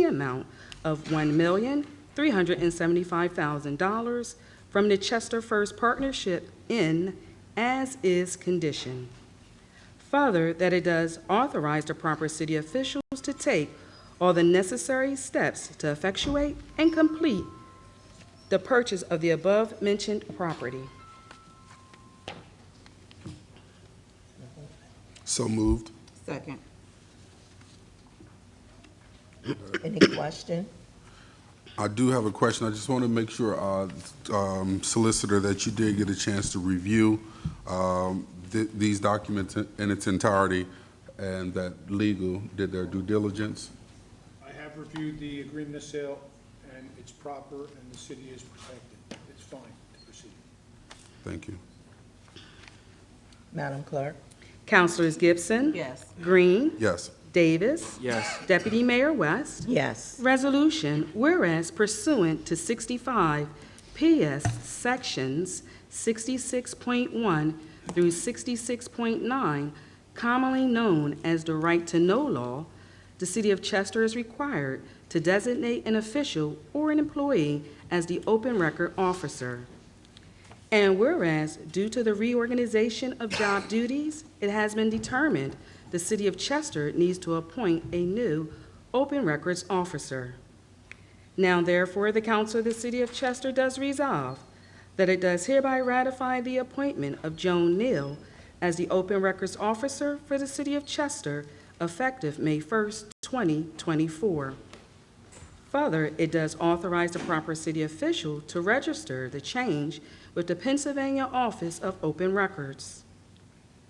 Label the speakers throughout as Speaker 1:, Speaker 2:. Speaker 1: the amount of one million, three hundred and seventy-five thousand dollars from the Chester First Partnership in as-is condition. Further, that it does authorize the proper city officials to take all the necessary steps to effectuate and complete the purchase of the above-mentioned property.
Speaker 2: So moved.
Speaker 3: Second.
Speaker 4: Any question?
Speaker 2: I do have a question. I just want to make sure, uh, um, Solicitor, that you did get a chance to review um, th- these documents in- in its entirety and that legal did their due diligence.
Speaker 5: I have reviewed the agreement of sale, and it's proper, and the city is protected. It's fine to proceed.
Speaker 2: Thank you.
Speaker 4: Madam Clerk?
Speaker 1: Councilors Gibson.
Speaker 3: Yes.
Speaker 1: Green.
Speaker 2: Yes.
Speaker 1: Davis.
Speaker 6: Yes.
Speaker 1: Deputy Mayor West.
Speaker 4: Yes.
Speaker 1: Resolution, whereas pursuant to 65 PS Sections 66.1 through 66.9, commonly known as the Right to Know Law, the City of Chester is required to designate an official or an employee as the open record officer. And whereas, due to the reorganization of job duties, it has been determined the City of Chester needs to appoint a new open records officer. Now therefore, the Council of the City of Chester does resolve that it does hereby ratify the appointment of Joan Neal as the open records officer for the City of Chester effective May 1st, 2024. Further, it does authorize the proper city official to register the change with the Pennsylvania Office of Open Records.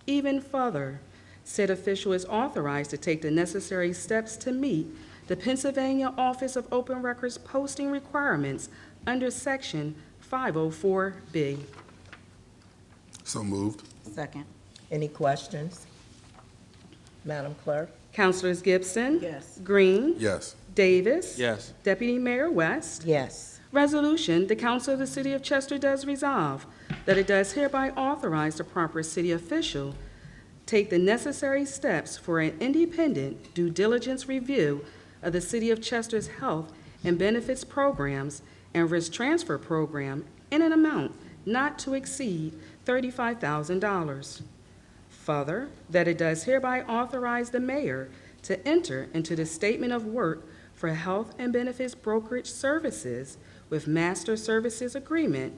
Speaker 1: Even further, said official is authorized to take the necessary steps to meet the Pennsylvania Office of Open Records posting requirements under Section 504B.
Speaker 2: So moved.
Speaker 3: Second.
Speaker 4: Any questions? Madam Clerk?
Speaker 1: Councilors Gibson.
Speaker 3: Yes.
Speaker 1: Green.
Speaker 2: Yes.
Speaker 1: Davis.
Speaker 6: Yes.
Speaker 1: Deputy Mayor West.
Speaker 4: Yes.
Speaker 1: Resolution, the Council of the City of Chester does resolve that it does hereby authorize the proper city official take the necessary steps for an independent due diligence review of the City of Chester's health and benefits programs and risk transfer program in an amount not to exceed $35,000. Further, that it does hereby authorize the mayor to enter into the statement of work for health and benefits brokerage services with master services agreement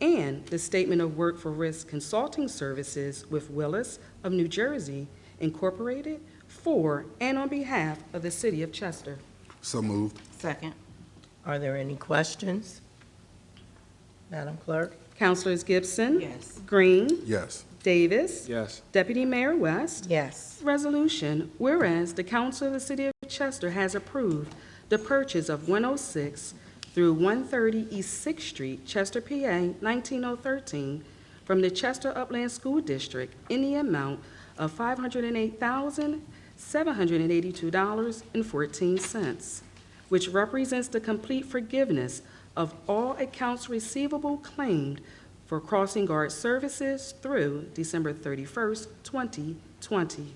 Speaker 1: and the statement of work for risk consulting services with Willis of New Jersey Incorporated for and on behalf of the city of Chester.
Speaker 2: So moved.
Speaker 3: Second.
Speaker 4: Are there any questions? Madam Clerk?
Speaker 1: Councilors Gibson.
Speaker 3: Yes.
Speaker 1: Green.
Speaker 2: Yes.
Speaker 1: Davis.
Speaker 6: Yes.
Speaker 1: Deputy Mayor West.
Speaker 4: Yes.
Speaker 1: Resolution, whereas the Council of the City of Chester has approved the purchase of 106 through 130 East Sixth Street, Chester, PA, 19013, from the Chester Upland School District in the amount of $508,782.14, which represents the complete forgiveness of all accounts receivable claimed for crossing guard services through December 31st, 2020.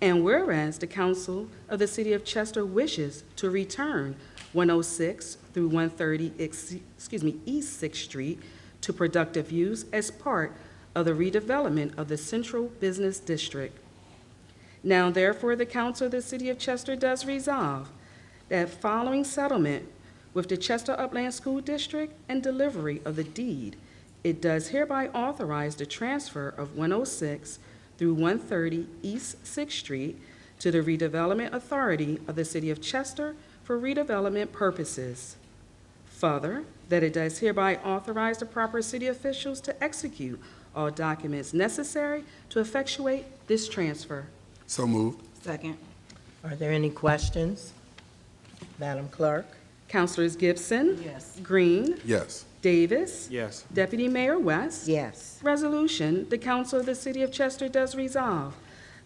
Speaker 1: And whereas the Council of the City of Chester wishes to return 106 through 130, ex- excuse me, East Sixth Street to productive use as part of the redevelopment of the Central Business District. Now therefore, the Council of the City of Chester does resolve that following settlement with the Chester Upland School District and delivery of the deed, it does hereby authorize the transfer of 106 through 130 East Sixth Street to the redevelopment authority of the City of Chester for redevelopment purposes. Further, that it does hereby authorize the proper city officials to execute all documents necessary to effectuate this transfer.
Speaker 2: So moved.
Speaker 3: Second.
Speaker 4: Are there any questions? Madam Clerk?
Speaker 1: Councilors Gibson.
Speaker 3: Yes.
Speaker 1: Green.
Speaker 2: Yes.
Speaker 1: Davis.
Speaker 6: Yes.
Speaker 1: Deputy Mayor West.
Speaker 4: Yes.
Speaker 1: Resolution, the Council of the City of Chester does resolve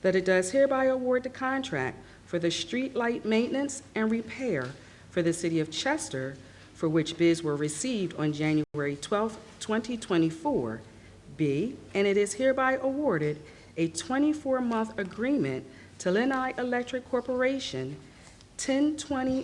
Speaker 1: that it does hereby award the contract for the streetlight maintenance and repair for the City of Chester, for which bids were received on January 12, 2024. B, and it is hereby awarded a 24-month agreement to Lenai Electric Corporation 1020